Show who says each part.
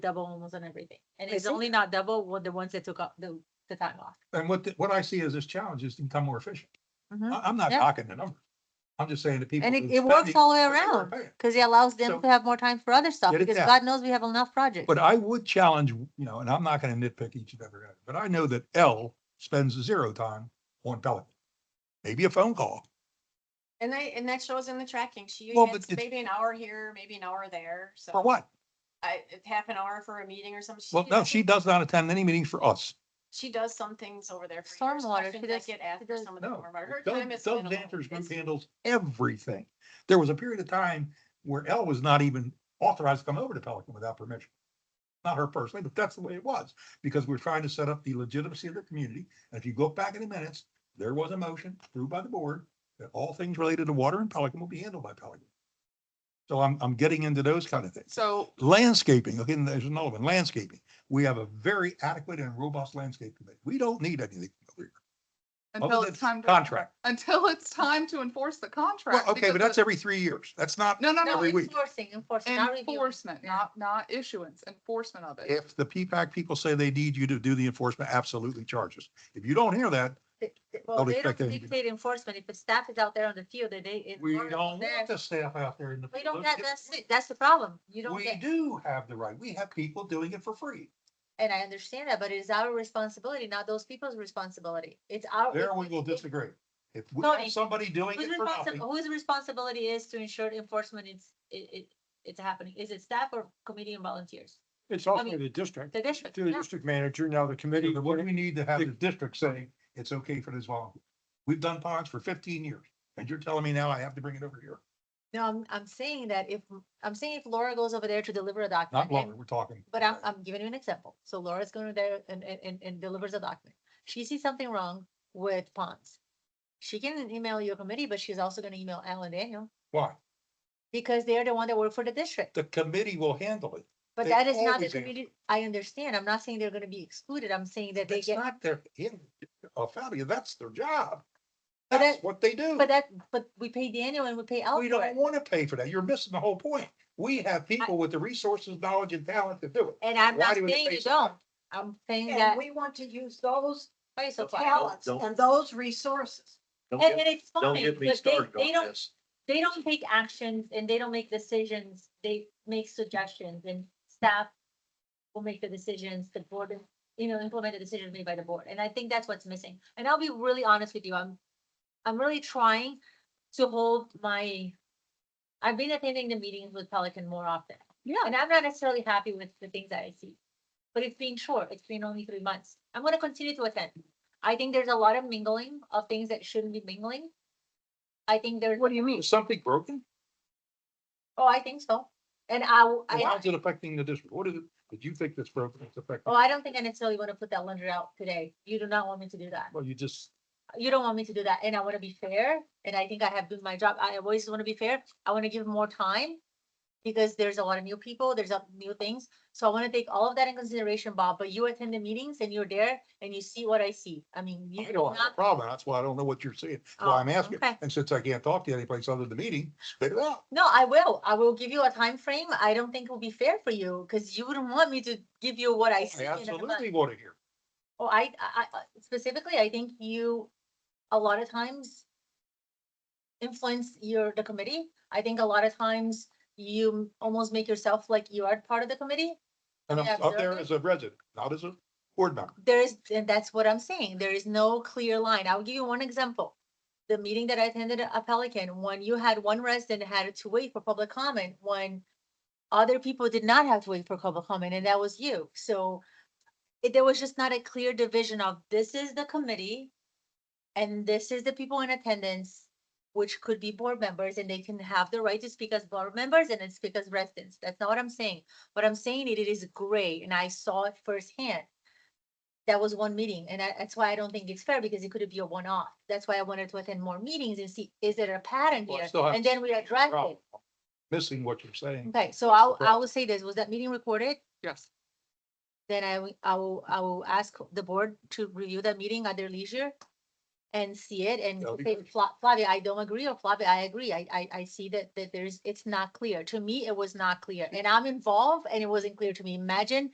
Speaker 1: double almost on everything. And
Speaker 2: I
Speaker 1: it's
Speaker 2: see.
Speaker 1: only not double with the ones that took up the, the time off.
Speaker 3: And what, the- what I see as this challenge is to become more efficient.
Speaker 1: Mhm.
Speaker 3: I, am not
Speaker 1: Yeah.
Speaker 3: knocking the number. I'm just saying to people.
Speaker 1: And it-
Speaker 3: who
Speaker 1: it works
Speaker 3: study,
Speaker 1: all the way
Speaker 3: that's what
Speaker 1: around.
Speaker 3: we're paying.
Speaker 1: Cause it allows
Speaker 3: So-
Speaker 1: them to have more time for other stuff,
Speaker 3: Get it
Speaker 1: because
Speaker 3: down.
Speaker 1: God knows we have enough projects.
Speaker 3: But I would challenge, you know, and I'm not gonna nitpick each and every, item, but I know that L spends zero time on Pelican. Maybe a phone call.
Speaker 2: And they, and that shows in the tracking. She
Speaker 3: Well,
Speaker 2: gets
Speaker 3: but it's-
Speaker 2: maybe an hour here, maybe an hour there, so.
Speaker 3: For what?
Speaker 2: I, it's half an hour for a meeting or something.
Speaker 3: Well, no,
Speaker 2: does-
Speaker 3: she does not attend any meetings for us.
Speaker 2: She does some things over there. for yours,
Speaker 1: Stormwater,
Speaker 2: questions
Speaker 1: she
Speaker 2: that
Speaker 1: does-
Speaker 2: Get
Speaker 1: she
Speaker 2: asked for
Speaker 1: does-
Speaker 2: some of the
Speaker 3: No.
Speaker 2: stormwater. Her
Speaker 3: Doug
Speaker 2: time is
Speaker 3: Doug
Speaker 2: minimal.
Speaker 3: Zanter's group
Speaker 2: It's-
Speaker 3: handles everything. There was a period of time where L was not even authorized to come over to Pelican without permission. Not her personally, but that's the way it was, because we're trying to set up the legitimacy of the community. And if you go back in the minutes, there was a motion approved by the board that all things related to water and Pelican will be handled by Pelican. So I'm, I'm getting into those kind of things.
Speaker 4: So,
Speaker 3: Landscaping, okay, and there's another one, landscaping. We have a very adequate and robust landscape committee. We don't need anything over here.
Speaker 4: until
Speaker 3: Other
Speaker 4: it's
Speaker 3: than
Speaker 4: time. to-
Speaker 3: Contract.
Speaker 4: Until it's time to enforce the
Speaker 3: Well,
Speaker 4: contract.
Speaker 3: okay, but
Speaker 4: because
Speaker 3: that's every three years. That's
Speaker 4: the-
Speaker 3: not,
Speaker 4: No, no,
Speaker 1: No,
Speaker 4: no,
Speaker 3: every week.
Speaker 1: enforcing, enforcing, not reviewing.
Speaker 4: enforcement, not, not issuance, enforcement of it.
Speaker 3: if the PPAC people say they need you to do the enforcement, absolutely charges. If you don't hear that,
Speaker 1: Th- th- Well, they don't
Speaker 3: expect anything.
Speaker 1: dictate enforcement. If the staff is out there on the field, then they.
Speaker 3: we
Speaker 1: enforce
Speaker 3: don't
Speaker 1: there.
Speaker 3: want the staff out there in the.
Speaker 1: We don't,
Speaker 3: field.
Speaker 1: get- that's, it. that's the problem. You don't
Speaker 3: We
Speaker 1: get,
Speaker 3: do have the right. We have people doing it for free.
Speaker 1: and I understand that, but it is our responsibility, not those people's responsibility. It's our.
Speaker 3: There
Speaker 1: it-
Speaker 3: we will
Speaker 1: it-
Speaker 3: disagree. If we
Speaker 1: Tony,
Speaker 3: have somebody doing
Speaker 1: Whose
Speaker 3: it for
Speaker 1: responsi-
Speaker 3: nothing,
Speaker 1: whose responsibility is to ensure enforcement is, it, it, it's happening? Is it staff or committee and volunteers?
Speaker 5: It's
Speaker 1: I
Speaker 5: also
Speaker 1: mean,
Speaker 5: the district,
Speaker 1: The district,
Speaker 5: through the
Speaker 1: yeah.
Speaker 5: district manager, now the committee.
Speaker 3: what do we need to have the district say it's okay for this volunteer? We've done ponds for fifteen years and you're telling me now I have to bring it over here.
Speaker 1: No, I'm, I'm saying that if, I'm saying if Laura goes over there to deliver a document.
Speaker 3: Not
Speaker 1: and-
Speaker 3: longer, we're talking.
Speaker 1: But I'm, I'm giving you an example. So Laura's going there and, and, and, and delivers a document. She sees something wrong with ponds. She can email your committee, but she's also gonna email Alan Daniel
Speaker 3: Why?
Speaker 1: because they're the one that work for the district.
Speaker 3: The committee will handle it.
Speaker 1: But
Speaker 3: They
Speaker 1: that is not the
Speaker 3: always answer.
Speaker 1: community. I understand. I'm not saying they're gonna be excluded. I'm saying that they
Speaker 3: That's
Speaker 1: get.
Speaker 3: not their, oh, Fabio, that's their job.
Speaker 1: But
Speaker 3: That's
Speaker 1: that-
Speaker 3: what they do.
Speaker 1: But that, but we pay Daniel and we pay Al
Speaker 3: We
Speaker 1: for
Speaker 3: don't
Speaker 1: it.
Speaker 3: want to pay for that. You're missing the whole point. We have people with the resources, knowledge and talent to do it.
Speaker 1: And I'm
Speaker 3: Why
Speaker 1: not
Speaker 3: do we
Speaker 1: saying
Speaker 3: pay
Speaker 1: you
Speaker 3: so
Speaker 1: don't. I'm saying that.
Speaker 6: And we want to use those
Speaker 1: Why you so quiet?
Speaker 6: talents
Speaker 7: don't-
Speaker 6: and those resources.
Speaker 7: Don't
Speaker 1: And
Speaker 7: get,
Speaker 1: and it's
Speaker 7: don't
Speaker 1: fine,
Speaker 7: get me
Speaker 1: but they,
Speaker 7: started
Speaker 1: they
Speaker 7: on
Speaker 1: don't,
Speaker 7: this.
Speaker 1: they don't take actions and they don't make decisions. They make suggestions and staff will make the decisions, the board, you know, implement the decisions made by the board. And I think that's what's missing. And I'll be really honest with you, I'm, I'm really trying to hold my, I've been attending the meetings with Pelican more often.
Speaker 4: Yeah.
Speaker 1: And I'm not necessarily happy with the things that I see. But it's been short, it's been only three months. I'm gonna continue to attend. I think there's a lot of mingling of things that shouldn't be mingling. I think there's,
Speaker 3: do you mean? Is something broken?
Speaker 1: oh, I think so. And I, w- I-
Speaker 3: Why is it affecting the district? What is it? Did you think that's broken? It's affecting.
Speaker 1: oh, I don't think I necessarily wanna put that laundry out today. You do not want me to do that.
Speaker 3: Well, you just,
Speaker 1: you don't want me to do that and I want to be fair and I think I have done my job. I always want to be fair. I want to give more time because there's a lot of new people, there's a new things. So I want to take all of that in consideration, Bob, but you attend the meetings and you're there and you see what I see. I mean, you
Speaker 3: I don't have a
Speaker 1: not,
Speaker 3: problem. That's why I don't know what you're saying. That's
Speaker 1: Oh,
Speaker 3: Why I'm asking.
Speaker 1: okay.
Speaker 3: And since I can't talk to you anyplace other than the meeting, spit it out.
Speaker 1: no, I will. I will give you a time frame. I don't think it will be fair for you because you wouldn't want me to give you what I see.
Speaker 3: I
Speaker 1: in a month.
Speaker 3: absolutely want to hear.
Speaker 1: Oh, I, I, I- specifically, I think you, a lot of times influence your, the committee. I think a lot of times you almost make yourself like you are part of the committee.
Speaker 3: And
Speaker 1: Yeah,
Speaker 3: I'm up there
Speaker 1: absolutely.
Speaker 3: as a resident, not as a board member.
Speaker 1: There is, and that's what I'm saying. There is no clear line. I'll give you one example. The meeting that I attended at Pelican, when you had one resident had to wait for public comment, when other people did not have to wait for public comment, and that was you. So it, there was just not a clear division of this is the committee and this is the people in attendance, which could be board members, and they can have the right to speak as board members and then speak as residents. That's not what I'm saying. What I'm saying it, it is gray, and I saw it firsthand that was one meeting, and I, that's why I don't think it's fair, because it could be a one-off. That's why I wanted to attend more meetings and see, is there a pattern
Speaker 3: Well, I
Speaker 1: here?
Speaker 3: still have
Speaker 1: And
Speaker 3: to
Speaker 1: then we address it.
Speaker 3: Problem. Missing what you're saying.
Speaker 1: Okay, so I'll,
Speaker 3: Correct.
Speaker 1: I will say this, was that meeting recorded?
Speaker 4: Yes.
Speaker 1: Then I, will- I will, I will ask the board to review that meeting at their leisure. and see it and
Speaker 3: That'll be
Speaker 1: say,
Speaker 3: good.
Speaker 1: "Fla- Flavia, I don't agree, or Flavia, I agree. I, I, I see
Speaker 3: Mm.
Speaker 1: that, that there's, it's not clear. To me, it was not clear. And I'm involved and it wasn't clear to me. Imagine